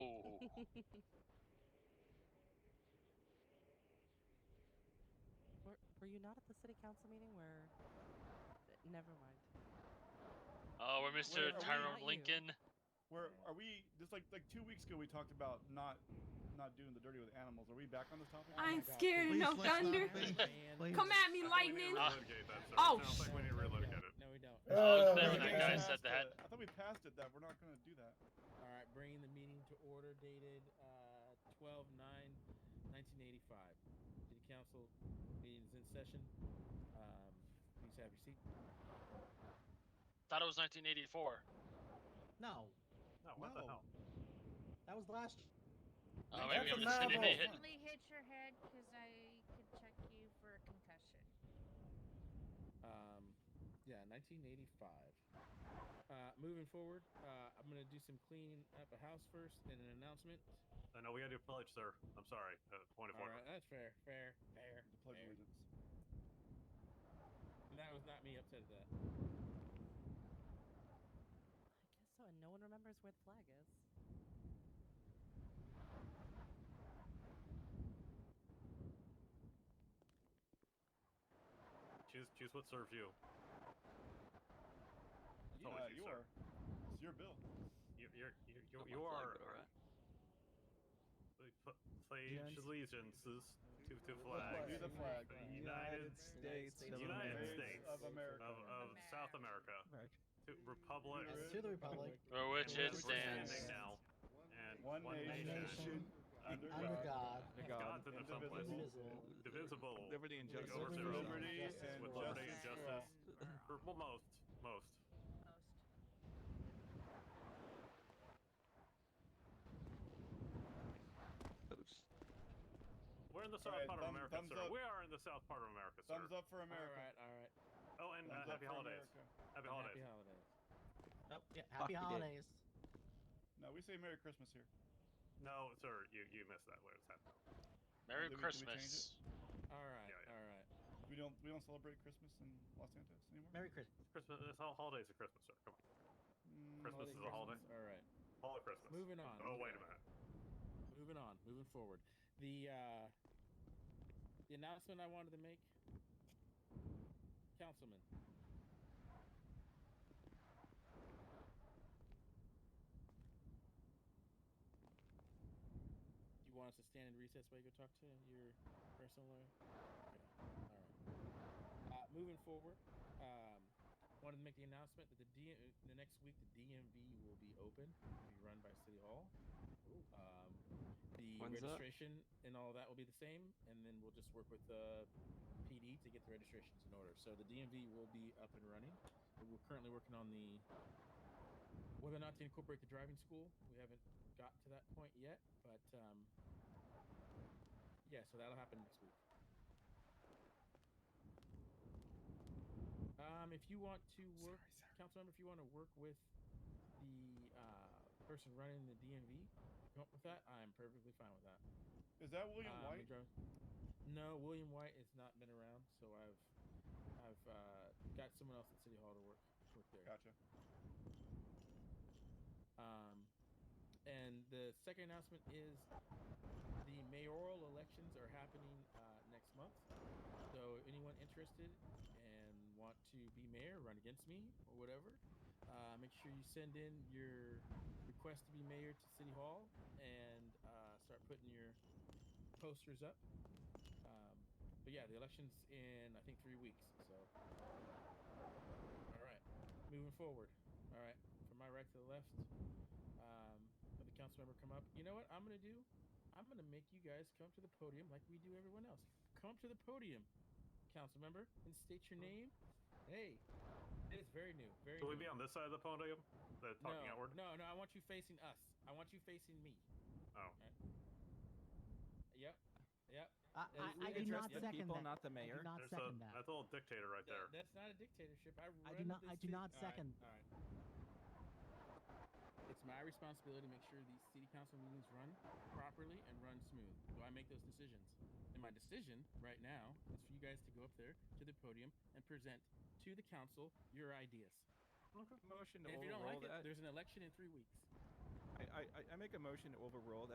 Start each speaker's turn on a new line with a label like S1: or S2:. S1: Were were you not at the city council meeting where uh, never mind.
S2: Oh, we're Mr.
S1: are we
S2: Tyrone
S1: not you?
S2: Lincoln.
S3: Where are we? Just like like two weeks ago, we talked about not not doing the dirty with animals. Are we back on this topic?
S4: I ain't
S5: Oh God,
S4: scared of no
S5: please let's not
S4: thunder.
S5: be- please.
S4: Come at me,
S6: I think
S4: lightning.
S6: We need to
S2: Ah,
S6: relocate that. sir.
S4: Oh,
S6: It sounds like we need to
S5: No, we
S6: relocate
S5: don't.
S6: it.
S5: No, we don't.
S7: Uh,
S2: I
S6: Oh,
S2: was there
S3: I
S2: when
S3: thought
S2: that
S3: we
S2: guy
S3: passed
S2: said that.
S3: it. I thought we passed it. That we're not going to do that.
S5: All right, bringing the meeting to order dated uh, 12 9 1985. City Council meeting is in session. Um, please have your seat.
S2: Thought it was 1984.
S5: No,
S6: No, what the
S3: No.
S6: hell?
S5: that was last.
S2: Oh,
S3: That's
S2: maybe
S3: a
S2: I'm just
S3: novel.
S2: hit.
S8: Only hit your head because I could check you for a concussion.
S5: Um, yeah, 1985. Uh, moving forward, uh, I'm gonna do some cleaning up the house first and an announcement.
S6: I know we gotta do pledge, sir. I'm sorry. Uh, point of
S5: All
S6: order.
S5: right, that's fair, fair, fair.
S3: The pledge of
S5: fair.
S3: allegiance.
S5: That was not me upset at that.
S1: I guess so, and no one remembers where the flag is.
S6: Choose choose what serves you. It's
S3: Yeah,
S6: always you,
S3: you
S6: sir.
S3: are. It's your bill.
S6: You you're, you you,
S2: Got my
S6: you
S2: flag, but
S6: are.
S2: all right.
S6: We pl- Pledge
S7: Gents.
S6: allegiances to, to
S3: flag.
S6: flags
S3: To the flag.
S6: The United
S7: States
S6: States,
S7: of
S6: United
S7: America.
S6: States
S3: of America.
S6: of, of South America
S7: America.
S6: to Republic
S3: Yes,
S5: To the
S7: Republic.
S2: For which
S5: Which
S2: it
S6: we're
S2: stands.
S6: standing now and
S3: One, nation,
S7: nation,
S3: under
S7: under
S3: God,
S5: God,
S6: God's in there someplace.
S3: indivisible,
S6: Divisible
S7: Liberty and
S6: Liberty
S7: justice.
S6: over
S3: with
S6: zero.
S3: liberty
S5: justice
S3: and
S6: with liberty and
S3: justice.
S6: justice. for well, most
S8: Most.
S6: most. We're in the south
S3: Alright,
S6: part
S3: thumb-
S6: of America,
S3: thumbs
S6: sir.
S3: up.
S6: We are in the south part of America, sir.
S3: Thumbs up for
S5: All
S3: America.
S5: right, all right.
S6: Oh, and uh,
S3: Thumbs up
S6: happy
S3: for
S6: holidays.
S3: America.
S6: Happy
S5: and
S6: holidays.
S5: Happy holidays.
S9: Oh, Yeah, happy
S7: Fuck, you did.
S9: holidays.
S3: No, we say Merry Christmas here.
S6: No, sir, you you missed that. Wait, what's that?
S2: Merry
S3: Did we- did we
S2: Christmas.
S3: change
S5: All right,
S6: Yeah, yeah.
S5: all right.
S3: We don't we don't celebrate Christmas in Los Santos anymore.
S9: Merry Christmas.
S6: It's Christmas. It's all holidays are Christmas, sir. Come on,
S3: Mm,
S5: Oh,
S6: Christmas
S3: holiday
S6: is a holiday.
S5: All right.
S6: all of Christmas.
S5: Moving on.
S6: Oh,
S5: moving
S6: wait a
S5: on,
S6: minute.
S5: Moving on. Moving forward. The uh, the announcement I wanted to make, Councilman. You want us to stand in recess while you go talk to your personal lawyer? Okay. All right. Uh, moving forward, um, wanted to make the announcement that the D- uh, the next week the DMV will be open, will be run by City Hall. Um, the
S7: When's that?
S5: registration and all that will be the same, and then we'll just work with the PD to get the registrations in order. So the DMV will be up and running. We're currently working on the whether or not to incorporate the driving school. We haven't got to that point yet, but um, yeah, so that'll happen next week. Um, if you want to work, council member, if you want to work with the uh, person running the DMV, come up with that. I'm perfectly fine with that.
S3: Is that William
S5: Um,
S3: White?
S5: Madro- No, William White has not been around, so I've I've uh, got someone else at City Hall to work work there.
S3: Gotcha.
S5: Um, and the second announcement is the mayoral elections are happening uh, next month. So anyone interested and want to be mayor, run against me or whatever, uh, make sure you send in your request to be mayor to City Hall and uh, start putting your posters up. Um, but yeah, the election's in I think three weeks. So all right, moving forward. All right, from my right to the left. Um, let the council member come up. You know what I'm gonna do? I'm gonna make you guys come to the podium like we do everyone else. Come to the podium, council member, and state your name. Hey, it is very new. Very.
S6: Will we
S5: new.
S6: be on this side of the podium? The talking
S5: no,
S6: outward.
S5: No, no. I want you facing us. I want you facing me.
S6: Oh.
S5: Yep. Yep.
S9: I,
S5: Yeah, we
S9: I, I
S5: can
S9: do
S5: address
S9: not
S5: the
S9: second
S7: people,
S9: that.
S7: not the
S9: I
S7: mayor.
S9: do not
S6: There's a,
S9: second that.
S6: that's a little dictator right
S5: Th-
S6: there.
S5: That's not a dictatorship. I,
S9: I do
S5: run
S9: not-
S5: This
S9: I do
S5: ci-
S9: not
S5: All right,
S9: second.
S5: all right. It's my responsibility to make sure these city council meetings run properly and run smooth. Do I make those decisions? And my decision right now is for you guys to go up there to the podium and present to the council your ideas.
S7: Motion to
S5: And if you don't
S7: overrule
S5: like it,
S7: that.
S5: there's an election in three weeks.
S7: I, I, I make a motion to overrule that.